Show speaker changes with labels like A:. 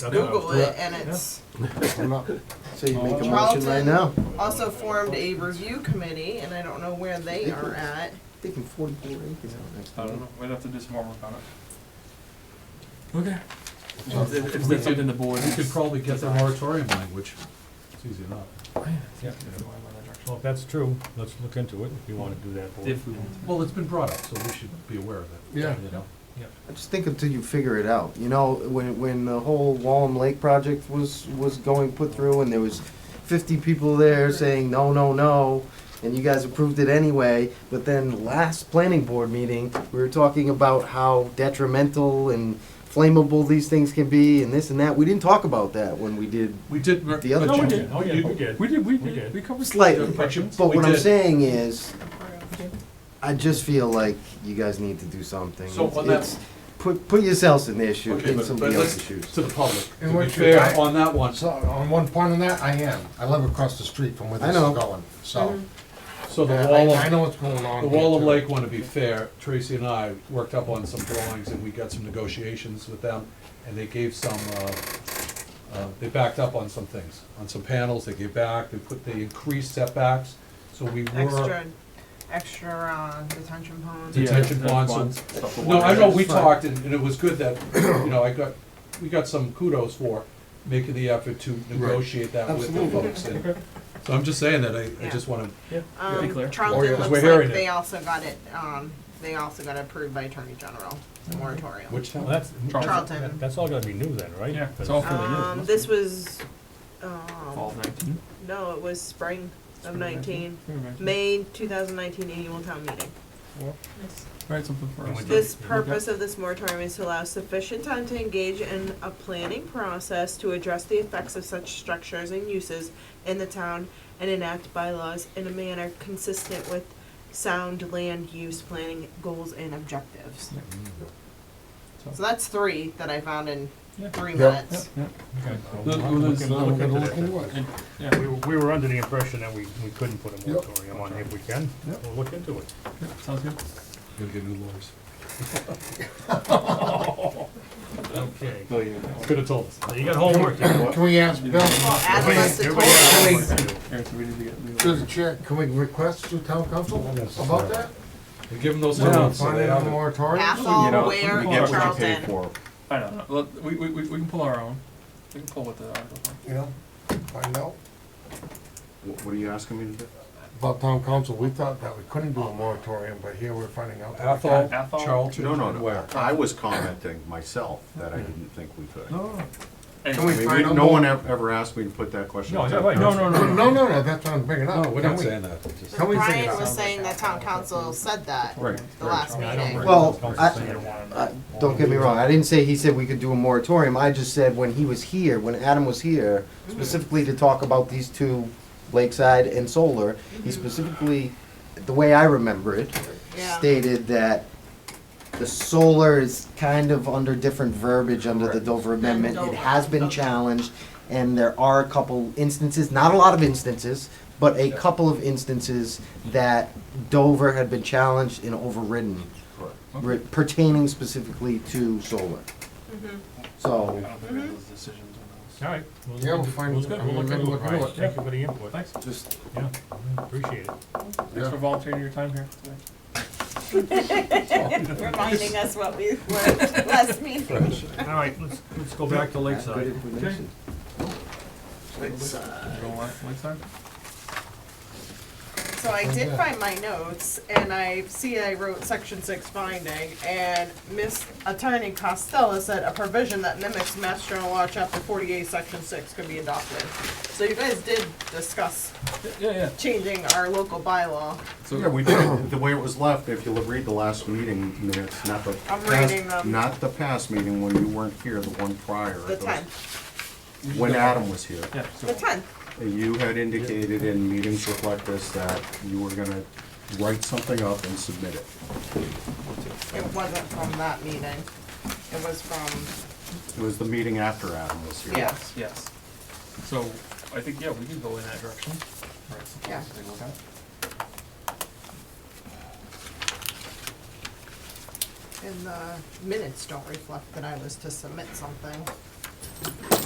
A: Just
B: I don't know.
A: Google it, and it's
C: I'm up. So you make a motion right
A: Charlton.
C: now?
A: also formed a review committee, and I don't know where they are at.
C: Thinking forty-four acres out next.
D: I don't know, we'd have to do some more work on it.
B: Okay.
D: If if that's something the board.
E: You could probably get the moratorium language, it's easy enough.
B: Well, if that's true, let's look into it if you wanna do that. Board.
D: If we want.
E: Well, it's been brought up, so we should be aware of it.
C: Yeah.
E: You know?
C: I just think until you figure it out. You know, when, when the whole Wallem Lake project was, was going put through and there was fifty people there saying, no, no, no, and you guys approved it anyway, but then last planning board meeting, we were talking about how detrimental and flammable these things can be and this and that. We didn't talk about that when we did
E: We did. mer-
C: the other.
B: No, we
C: change.
B: did. Oh, yeah, we did.
D: We did, we
B: We did.
D: did, we covered.
C: Slightly,
D: But you-
C: But
E: We
C: what I'm
E: did.
C: saying is, I just feel like you guys need to do something.
E: So on that-
C: It's- Put, put yourselves in their shoes,
E: Okay,
C: in
E: but-
C: somebody
E: but let's-
C: else's shoes.
E: To the public,
F: And
E: to be
F: what you-
E: fair,
F: I-
E: on that one,
F: So, on one point on that, I am. I live across the street from where
C: I
F: this is
C: know. Mm-hmm.
F: going, so.
E: so the
F: I-
E: wall
F: I
E: of,
F: know what's going on.
E: the wall of
F: here,
E: Lake, wanna be fair, Tracy and I worked up on some drawings and we got some negotiations with them, and they gave some, uh, uh, they backed up on some things, on some panels, they gave back, they put, they increased setbacks, so we were. uh,
A: Extra, extra uh, detention ponds.
E: Yeah. Detention bonds and- No, I know, we talked, and and it was good that, you know, I got, we got some kudos for making the effort to negotiate that with the
C: Absolutely.
E: folks. and- So I'm just saying that, I, I just wanna,
D: Be
A: Um,
D: clear.
E: Oh, yeah,
A: Charlton
E: 'cause
A: looks
E: we're hearing
A: like
E: it.
A: they also got it, um, they also got approved by Attorney General, the moratorium.
E: which
B: Well,
E: town?
B: that's,
A: Charlton.
B: that- that's all gonna be new then, right?
D: Yeah, it's
B: But-
D: all fairly new.
A: Um, this was,
D: Fall
A: um,
D: of nineteen.
A: no, it was spring of
D: Spring of
A: nineteen,
D: All
A: May two thousand nineteen annual town meeting.
D: right, something for
B: And
D: us.
B: we did.
A: This purpose of this moratorium is to allow sufficient time to engage in a planning process to address the effects of such structures and uses in the town and enact bylaws in a manner consistent with sound land use planning goals and objectives. So that's three that I found in
D: Yeah.
A: three
F: Yeah.
A: minutes.
D: Yeah,
B: Okay.
E: The-
B: I'll- I'll
E: the-
B: look in-
E: the-
B: I'll look
F: too.
B: into
F: Look
B: that
F: into
B: then.
F: what?
D: and, yeah,
B: We, were- we were under the impression that we, we couldn't put a
F: Yep.
B: moratorium on it. If we can,
F: Yep.
B: we'll look into it.
D: yeah, sounds good.
E: Gonna get new lawyers.
B: Okay.
E: Could've told us.
B: You got homework. Everybody
F: Can we ask Bill,
A: Well, ask us to
B: everybody got
A: talk.
B: homework to do.
D: Here, so we need to get new-
F: through the chair, can we request to town council about that?
E: We give them those two
F: Yeah,
E: months, so
F: Find
E: they
F: out
E: have
F: the
E: it.
F: moratorium?
A: Athol,
G: You know,
A: Ware,
G: you
A: and
G: get what you pay
A: Charlton.
G: for.
D: I don't know, Let- we, we, we we can pull our own, we can pull what the articles are.
F: You know, find out
G: Wh- What are you asking me to do?
F: about town council. We thought that we couldn't do a moratorium, but here we're finding out. that we
E: Athol,
F: can.
D: Athol?
E: Charlton,
G: No, no,
E: and
G: no.
E: Ware.
G: I was commenting myself that I didn't think we could. I
F: No,
D: And-
F: Can we
G: mean, we-
F: find out
G: No
F: more?
G: one ev- ever asked me to put that question.
B: No,
G: to
B: yeah,
G: the
B: right.
G: council.
D: no,
F: no, no, no, that's what I'm bringing up.
E: No, we're
F: Can
E: not
F: we-
E: saying that, it's just-
F: Can we figure it
A: Brian
F: out?
A: was saying that town council said that
G: Right.
A: the last
B: Yeah, I don't
A: meeting.
B: worry.
C: Well,
B: Council's
C: I-
B: saying they wanna know.
C: Uh, Don't get me wrong, I didn't say he said we could do a moratorium, I just said when he was here, when Adam was here, specifically to talk about these two, Lakeside and Solar, he specifically, the way I remember it,
A: Yeah.
C: stated that the solar is kind of under different verbiage under the Dover Amendment. It has been
A: Okay.
C: challenged, and there are a couple instances, not a lot of instances, but a couple of instances that Dover had been challenged and overridden
G: Correct.
C: re- pertaining specifically to solar.
D: I
C: So,
D: don't think we have those decisions on those.
B: All right. Well,
F: Yeah, we'll find-
B: well, good.
F: I'm
B: We'll look
F: gonna
B: into it,
F: look into
B: Brian.
F: it.
B: Thank you for the input.
D: Thanks,
G: Just,
B: Yeah, appreciate it.
D: thanks for volunteering your time here today.
H: reminding us what we learned last meeting.
B: All right, let's, let's go back to
C: good
B: Lakeside.
C: information.
D: You don't want, like that?
A: So I did find my notes, and I see I wrote section six finding, and Miss Attorney Costello said a provision that mimics Mass General Law, chapter forty-eight, section six could be adopted. So you guys did discuss
D: Yeah, yeah,
A: changing our local bylaw.
G: yeah, we did, it the way it was left, if you'll read the last meeting minutes, not the.
A: I'm
G: past-
A: reading them.
G: Not the past meeting when you weren't here, the one prior.
A: The
G: It was
A: tenth,
G: When Adam was here.
D: yeah, so-
A: the tenth.
G: You had indicated in meetings like this that you were gonna write something up and submit it.
A: It wasn't from that meeting. It was from,
G: It was the meeting after Adam was here.
A: yeah.
D: Yes. So, I think, yeah, we can go in that direction. Right, so
A: Yeah.
D: take a look at it.
A: And the minutes don't reflect that I was to submit something.